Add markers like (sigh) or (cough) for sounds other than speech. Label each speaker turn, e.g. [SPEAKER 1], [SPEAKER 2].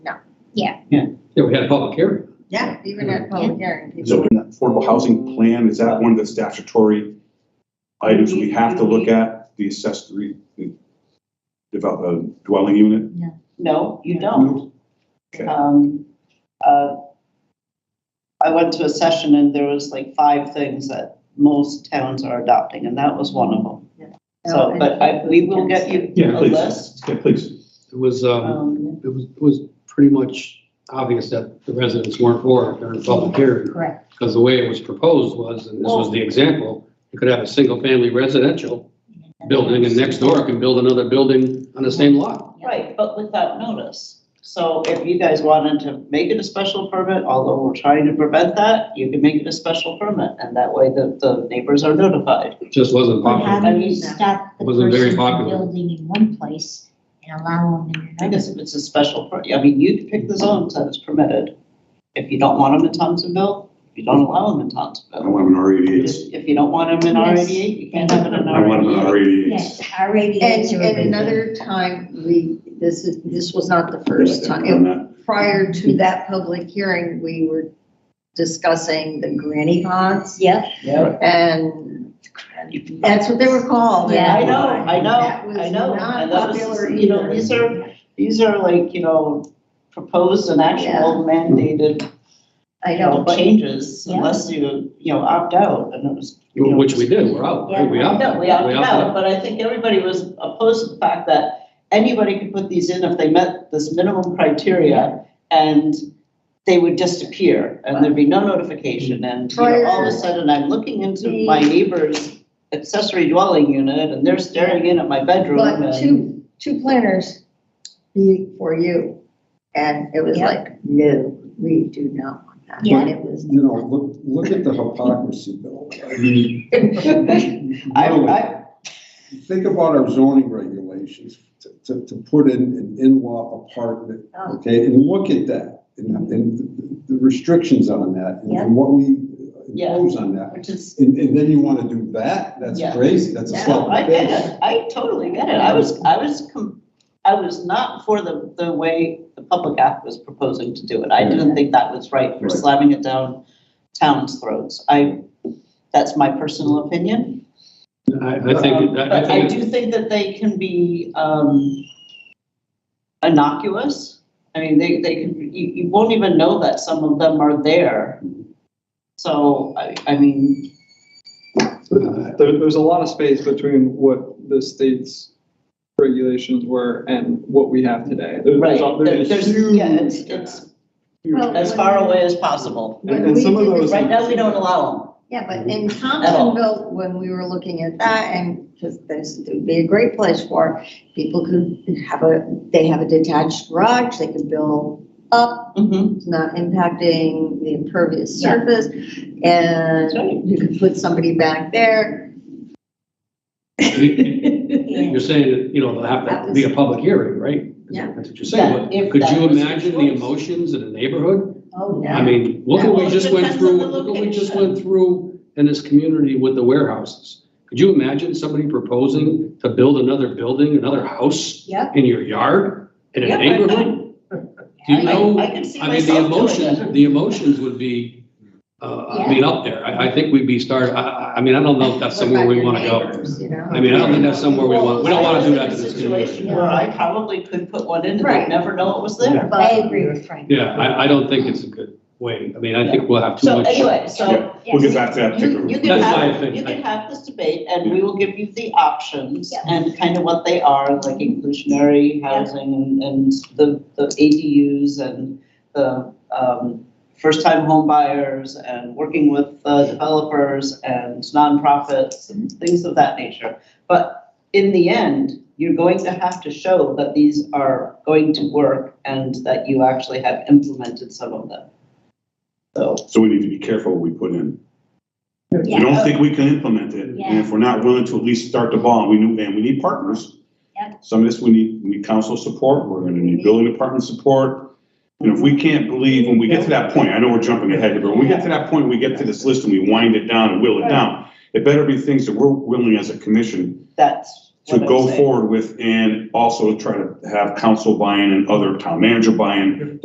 [SPEAKER 1] Yeah, we had a public hearing.
[SPEAKER 2] Yeah, even at public hearing.
[SPEAKER 3] Is it
[SPEAKER 2] people-
[SPEAKER 3] an affordable housing plan? Is that one of the statutory items we have to look at? The accessory, the develop, uh, dwelling unit?
[SPEAKER 4] No, you don't. Um, uh, I went to a session and there was like five things that most towns are adopting, and that was one of them.
[SPEAKER 5] Oh,
[SPEAKER 4] So, but I, we will get you
[SPEAKER 3] Yeah,
[SPEAKER 4] a
[SPEAKER 3] please.
[SPEAKER 4] list.
[SPEAKER 3] Yeah, please.
[SPEAKER 1] It was, um,
[SPEAKER 4] Um,
[SPEAKER 1] it was, it was pretty much obvious that the residents weren't for it during the public hearing.
[SPEAKER 2] Correct.
[SPEAKER 1] Because the way it was proposed was, and this was the example, you could have a single-family residential building and next door can build another building on the same lot.
[SPEAKER 4] Right, but without notice. So if you guys wanted to make it a special permit, although we're trying to prevent that, you can make it a special permit, and that way the, the neighbors are notified.
[SPEAKER 1] It Just wasn't
[SPEAKER 5] But
[SPEAKER 1] popular.
[SPEAKER 5] how do you stop the
[SPEAKER 1] Wasn't very
[SPEAKER 5] person from
[SPEAKER 1] popular.
[SPEAKER 5] building in one place and allow them in
[SPEAKER 4] I
[SPEAKER 5] another?
[SPEAKER 4] guess if it's a special, per- I mean, you can pick the zones that is permitted. If you don't want them in Thompsonville, you don't allow them in
[SPEAKER 3] I don't
[SPEAKER 4] Thompsonville.
[SPEAKER 3] want an R eighty-eight.
[SPEAKER 4] If you don't want them in R eighty-eight, you can't have it in
[SPEAKER 3] I
[SPEAKER 4] R
[SPEAKER 3] want an R
[SPEAKER 4] eighty-eight.
[SPEAKER 3] eighty-eight.
[SPEAKER 5] Yes, our
[SPEAKER 2] And,
[SPEAKER 5] radios are.
[SPEAKER 2] and another time, we, this is, this was not the first time. It prior to that public hearing, we were discussing the granny pots (laughs)
[SPEAKER 5] Yep,
[SPEAKER 4] Yeah,
[SPEAKER 2] and that's what they were called.
[SPEAKER 5] Yeah.
[SPEAKER 4] I know, I
[SPEAKER 2] That was
[SPEAKER 4] know, I know.
[SPEAKER 2] not
[SPEAKER 4] And that was-
[SPEAKER 2] popular
[SPEAKER 4] You know,
[SPEAKER 2] either.
[SPEAKER 4] these are, these are like, you know, proposed and actual mandated,
[SPEAKER 2] I
[SPEAKER 4] you
[SPEAKER 2] know,
[SPEAKER 4] know,
[SPEAKER 2] but
[SPEAKER 4] changes
[SPEAKER 5] Yeah.
[SPEAKER 4] unless you, you know, opt out and it was. you know,
[SPEAKER 1] Which we did, we're out, right? We opted.
[SPEAKER 4] No, we opted out, but I think everybody was opposed to the fact that anybody could put these in if they met this minimum criteria and they would disappear and there'd be no notification and, you know, all of a sudden I'm looking into my neighbor's accessory dwelling unit and they're staring in at my bedroom
[SPEAKER 2] but
[SPEAKER 4] and.
[SPEAKER 2] two, two planners for you. And it was
[SPEAKER 5] Yeah.
[SPEAKER 2] like, no, we do not want that.
[SPEAKER 5] Yeah.
[SPEAKER 2] And it was.
[SPEAKER 6] You know, look, look at the hypocrisy, Bill. I mean,
[SPEAKER 4] (laughs) I,
[SPEAKER 6] really,
[SPEAKER 4] I,
[SPEAKER 6] Think about our zoning regulations to, to, to put in an in-law apartment,
[SPEAKER 2] Oh.
[SPEAKER 6] okay? And look at that, and, and the restrictions on that,
[SPEAKER 2] Yeah.
[SPEAKER 6] and what we
[SPEAKER 4] Yeah.
[SPEAKER 6] impose on that.
[SPEAKER 4] which is,
[SPEAKER 6] And, and then you wanna do that? That's
[SPEAKER 4] Yeah.
[SPEAKER 6] crazy, that's a
[SPEAKER 2] Yeah.
[SPEAKER 4] no,
[SPEAKER 6] slap in the
[SPEAKER 4] I get
[SPEAKER 6] face.
[SPEAKER 4] it, I totally get it, I was, I was, com- I was not for the, the way the Public Act was proposing to do it, I didn't think that was right, for
[SPEAKER 6] Right.
[SPEAKER 4] slamming it down towns' throats, I, that's my personal opinion.
[SPEAKER 1] I, I think,
[SPEAKER 4] Um,
[SPEAKER 1] I- I
[SPEAKER 4] But I
[SPEAKER 1] think,
[SPEAKER 4] do think that they can be, um, innocuous, I mean, they, they can, you, you won't even know that some of them are there. So, I, I mean,
[SPEAKER 1] uh,
[SPEAKER 7] There, there's a lot of space between what the state's regulations were and what we have today. There-
[SPEAKER 4] right,
[SPEAKER 7] There's, a-
[SPEAKER 4] there-
[SPEAKER 7] there's a
[SPEAKER 4] there's,
[SPEAKER 7] huge
[SPEAKER 4] yeah, it's,
[SPEAKER 7] gap.
[SPEAKER 4] it's
[SPEAKER 7] Huge
[SPEAKER 2] Well,
[SPEAKER 7] gap.
[SPEAKER 4] as far away as possible.
[SPEAKER 2] when
[SPEAKER 7] And- and
[SPEAKER 2] we
[SPEAKER 7] some of
[SPEAKER 2] did the
[SPEAKER 7] those-
[SPEAKER 4] Right now, we don't allow them.
[SPEAKER 2] Yeah, but in Thompsonville, when we were looking at that, and because this would be a great place for, people could have a, they have a detached garage, they could build up,
[SPEAKER 4] Mm-hmm.
[SPEAKER 2] it's not impacting the impervious surface, and you could put somebody back there.
[SPEAKER 1] you're saying that, you know, there'll have to be a public hearing, right?
[SPEAKER 2] Yeah.
[SPEAKER 1] That's what you're saying,
[SPEAKER 4] Yeah,
[SPEAKER 1] but
[SPEAKER 4] if
[SPEAKER 1] could
[SPEAKER 4] that
[SPEAKER 1] you
[SPEAKER 4] was your
[SPEAKER 1] imagine the
[SPEAKER 4] choice.
[SPEAKER 1] emotions in a neighborhood?
[SPEAKER 2] Oh,
[SPEAKER 1] I
[SPEAKER 2] no.
[SPEAKER 1] mean, look what
[SPEAKER 4] Well,
[SPEAKER 1] we
[SPEAKER 4] it
[SPEAKER 1] just went
[SPEAKER 4] depends on
[SPEAKER 1] through,
[SPEAKER 4] the
[SPEAKER 1] look what we just
[SPEAKER 4] location.
[SPEAKER 1] went through in this community with the warehouses. Could you imagine somebody proposing to build another building, another house
[SPEAKER 2] Yep.
[SPEAKER 1] in your yard, in
[SPEAKER 4] Yeah,
[SPEAKER 1] a
[SPEAKER 4] I
[SPEAKER 1] neighborhood? Do you
[SPEAKER 4] I- I
[SPEAKER 1] know,
[SPEAKER 4] can see
[SPEAKER 1] I mean, the
[SPEAKER 4] myself doing
[SPEAKER 1] emotions,
[SPEAKER 4] it.
[SPEAKER 1] the emotions would be, uh, I
[SPEAKER 5] Yeah.
[SPEAKER 1] mean, up there. I, I think we'd be starting, I, I, I mean, I don't know if that's
[SPEAKER 2] What
[SPEAKER 1] somewhere
[SPEAKER 2] about
[SPEAKER 1] we
[SPEAKER 2] your
[SPEAKER 1] want to go.
[SPEAKER 2] neighbors, you know?
[SPEAKER 1] I mean, I don't think that's somewhere we want, we don't want to do
[SPEAKER 4] Well, I
[SPEAKER 1] that to
[SPEAKER 4] was in a
[SPEAKER 1] this
[SPEAKER 4] Situation
[SPEAKER 1] community.
[SPEAKER 4] where I probably could put one in and
[SPEAKER 2] Right.
[SPEAKER 4] they'd never know it was there.
[SPEAKER 5] I
[SPEAKER 2] But-
[SPEAKER 5] agree with Frank.
[SPEAKER 1] Yeah, I, I don't think it's a good way. I mean, I think we'll have too
[SPEAKER 4] So
[SPEAKER 1] much.
[SPEAKER 4] anyway, so
[SPEAKER 3] Yeah. We'll get back to that
[SPEAKER 4] you,
[SPEAKER 3] particular.
[SPEAKER 4] you
[SPEAKER 1] That's
[SPEAKER 4] can
[SPEAKER 1] my
[SPEAKER 4] have,
[SPEAKER 1] opinion.
[SPEAKER 4] you can have this debate and we will give you the options and kind of what they are, like inclusionary housing and, and the, the ADUs and the, um, first-time home buyers and working with uh, developers and nonprofits and things of that nature. But in the end, you're going to have to show that these are going to work and that you actually have implemented some of them. So,
[SPEAKER 3] So we need to be careful what we put in. If
[SPEAKER 5] Yeah.
[SPEAKER 3] we don't think we can implement it, and if we're not willing to at least start the ball, we knew, and we need partners.
[SPEAKER 5] Yeah.
[SPEAKER 3] Some of this, we need, we need council support, we're gonna need building department support. And if we can't believe, when we get to that point, I know we're jumping ahead, here, but when we get to that point, we get to this list and we wind it down and whittle it down, it better be things that we're willing as a commission
[SPEAKER 4] that's
[SPEAKER 3] to
[SPEAKER 4] what I'm
[SPEAKER 3] go
[SPEAKER 4] saying.
[SPEAKER 3] forward with, and also try to have council buy-in and other town manager buy-in,